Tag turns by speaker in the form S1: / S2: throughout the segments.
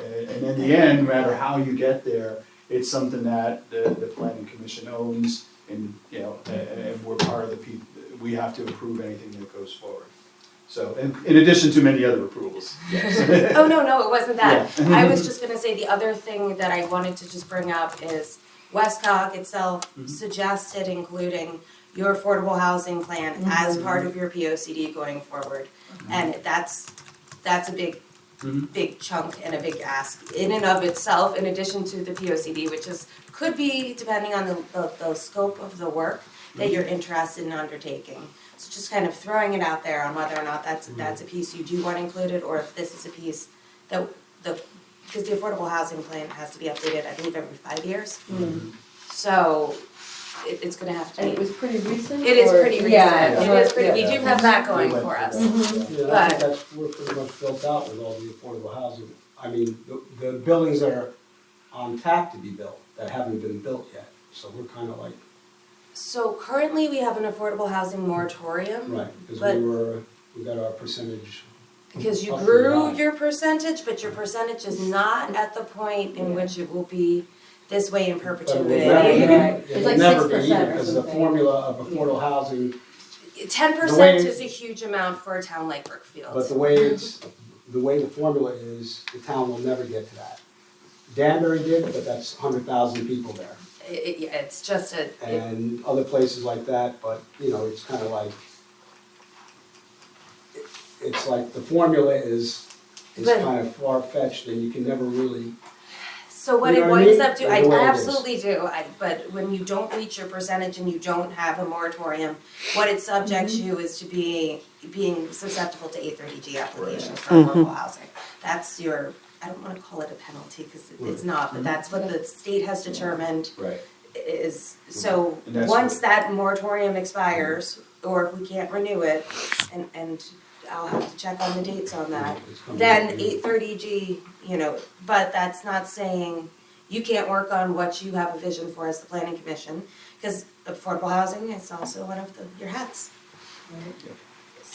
S1: And and in the end, no matter how you get there, it's something that the, the planning commission owns and, you know, a- a- and we're part of the people, we have to approve anything that goes forward. So, in, in addition to many other approvals.
S2: Oh, no, no, it wasn't that.
S1: Yeah.
S2: I was just gonna say, the other thing that I wanted to just bring up is Westcog itself
S1: Mhm.
S2: suggested including your affordable housing plan as part of your P O C D going forward. And that's, that's a big,
S3: Mm-hmm.
S1: Mhm.
S2: big chunk and a big ask in and of itself, in addition to the P O C D, which is, could be depending on the, the, the scope of the work that you're interested in undertaking. So just kind of throwing it out there on whether or not that's, that's a piece you do want included, or if this is a piece that the, because the affordable housing plan has to be updated, I believe, every five years. So it, it's gonna have to
S4: And it
S2: be,
S4: was pretty recent?
S2: it is
S4: or-
S2: pretty recent,
S4: Yeah,
S2: it is pretty, we do have that going for us.
S5: Yeah, I think that's, we're pretty much built out with all the affordable housing. I mean, the, the buildings that are on tap to be built, that haven't been built yet, so we're kind of like,
S2: So currently, we have an affordable housing moratorium,
S5: right, because
S2: But-
S5: we were, we got our percentage.
S2: because you
S5: Up and
S2: grew
S5: down.
S2: your percentage, but your percentage is not at the point in
S4: Yeah.
S2: which it will be this way in
S5: But we'll
S2: perpetuity.
S5: never-
S4: Yeah, right.
S5: yeah,
S4: It's
S5: we'll
S4: like
S5: never be
S4: 6% or
S5: either, Because the
S4: something.
S5: formula of affordable housing
S2: Ten
S5: The way-
S2: percent is a huge amount for a town like Brookfield.
S5: But the way it's, the way the formula is, the town will never get to that. Danbury did, but that's hundred thousand people there,
S2: It- it- yeah, it's just a, it-
S5: and other places like that, but, you know, it's kinda like, it- it's like the formula is, is
S2: But-
S5: kinda far-fetched, and you can never really,
S2: so what
S5: You
S2: it
S5: know what I
S2: winds
S5: mean?
S2: up to,
S5: The
S2: I
S5: way it is.
S2: absolutely do, I, but when you don't reach your percentage and you don't have a moratorium, what it subjects you is to be, being susceptible to A thirty G applications for affordable housing. That's your, I don't wanna call it a penalty, cause it- it's
S1: Right. Mm-hmm.
S2: not, but that's what the state has determined
S1: Right.
S2: is, so,
S1: Mm-hmm. And that's Mm-hmm.
S2: once that moratorium expires, or if we can't renew it, and, and I'll have to check on the dates on that,
S5: it's coming.
S2: then eight thirty G, you know, but that's not saying you can't work on what you have a vision for as the planning commission, because affordable housing is also one of the, your hats.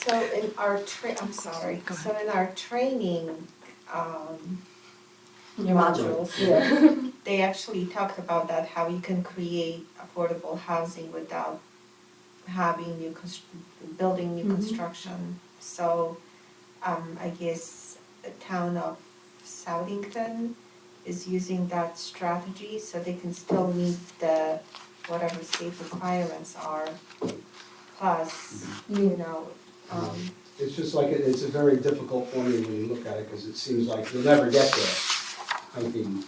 S3: So in our tra- I'm sorry, so in our training, um,
S2: Your modules.
S4: Yeah,
S3: they actually talk about that, how you can create affordable housing without having new constr- building new
S4: Mhm.
S3: construction. So, um, I guess the town of Southington is using that strategy, so they can still meet the whatever state requirements are. Plus,
S2: Mm-hmm.
S3: you know, um,
S5: It's just like, it- it's a very difficult formula when you look at it, because it seems like you'll never get there. I mean,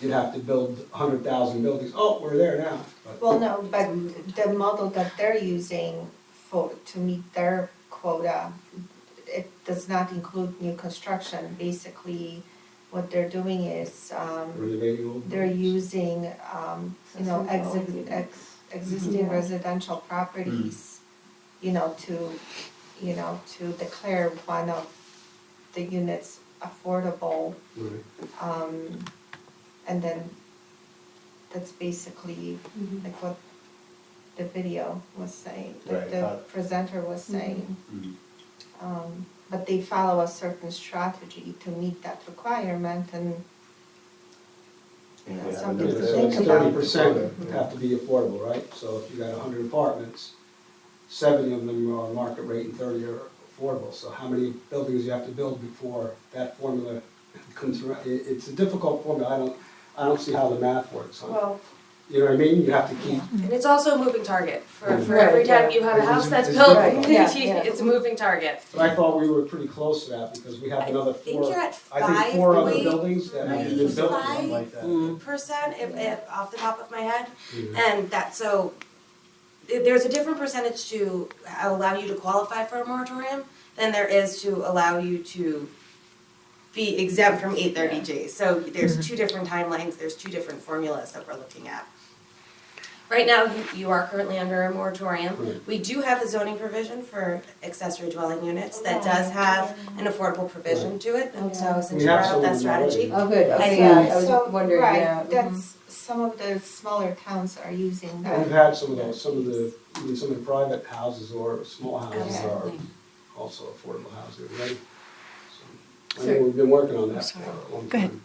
S5: you'd have to build hundred thousand buildings, oh, we're there now, but.
S3: Well, no, but the model that they're using for, to meet their quota, it does not include new construction. Basically, what they're doing is, um,
S5: Renovating old
S3: they're
S5: buildings.
S3: using, um, you know, exi- ex- existing
S4: Yeah.
S3: residential properties, you know, to, you know, to declare one of the units affordable
S5: Right.
S3: um, and then that's basically
S4: Mhm.
S3: like what the video was saying,
S1: Right,
S3: like
S1: uh,
S3: the presenter was saying.
S1: Mhm.
S3: Um, but they follow a certain strategy to meet that requirement and you know,
S1: Yeah,
S3: something
S1: but
S3: to
S1: it's-
S3: think
S1: it's
S3: about.
S5: Thirty percent have to be affordable, right? So if you got hundred apartments, seventy of them are market rate and thirty are affordable. So how many buildings you have to build before that formula comes around? It, it's a difficult formula, I don't, I don't see how the math works on it.
S3: Well,
S5: You know what I mean? You have to keep,
S2: And it's also a moving target, for, for
S4: Mm-hmm. Right,
S2: every time
S4: yeah.
S2: you have a
S5: Mm-hmm. It's-
S2: house that's
S5: it's
S2: built,
S4: difficult. Yeah, yeah.
S2: it's a moving target.
S5: but I thought we were pretty close to that because we have
S2: I
S5: another
S2: think you're
S5: four,
S2: at
S5: I think
S2: five
S5: four other
S2: point-
S5: buildings that haven't been built, or something like that.
S2: percent, if, if, off the top of my head,
S5: Yeah.
S2: and that, so, th- there's a different percentage to allow you to qualify for a moratorium than there is to allow you to be exempt from eight thirty G. So there's two different timelines, there's two different formulas that we're looking at. Right now, you, you are currently under a moratorium.
S5: Right.
S2: We do have a zoning provision for accessory dwelling units that
S3: Oh,
S2: does have
S3: yeah.
S2: an affordable provision to it, and so since
S5: We
S2: you
S5: have
S2: brought up that
S5: someone
S2: strategy.
S4: oh, good,
S2: I
S4: okay,
S2: see.
S4: yeah, I
S3: so,
S4: was wondering, yeah.
S3: right, mm-hmm.
S4: mhm.
S3: that's, some of the smaller towns are using that.
S5: We've had some of those, some of the, even some of the private houses or small houses are
S2: Absolutely.
S5: also affordable housing, right? So, I
S4: So-
S5: know we've been working on that for a long time.
S6: Go ahead.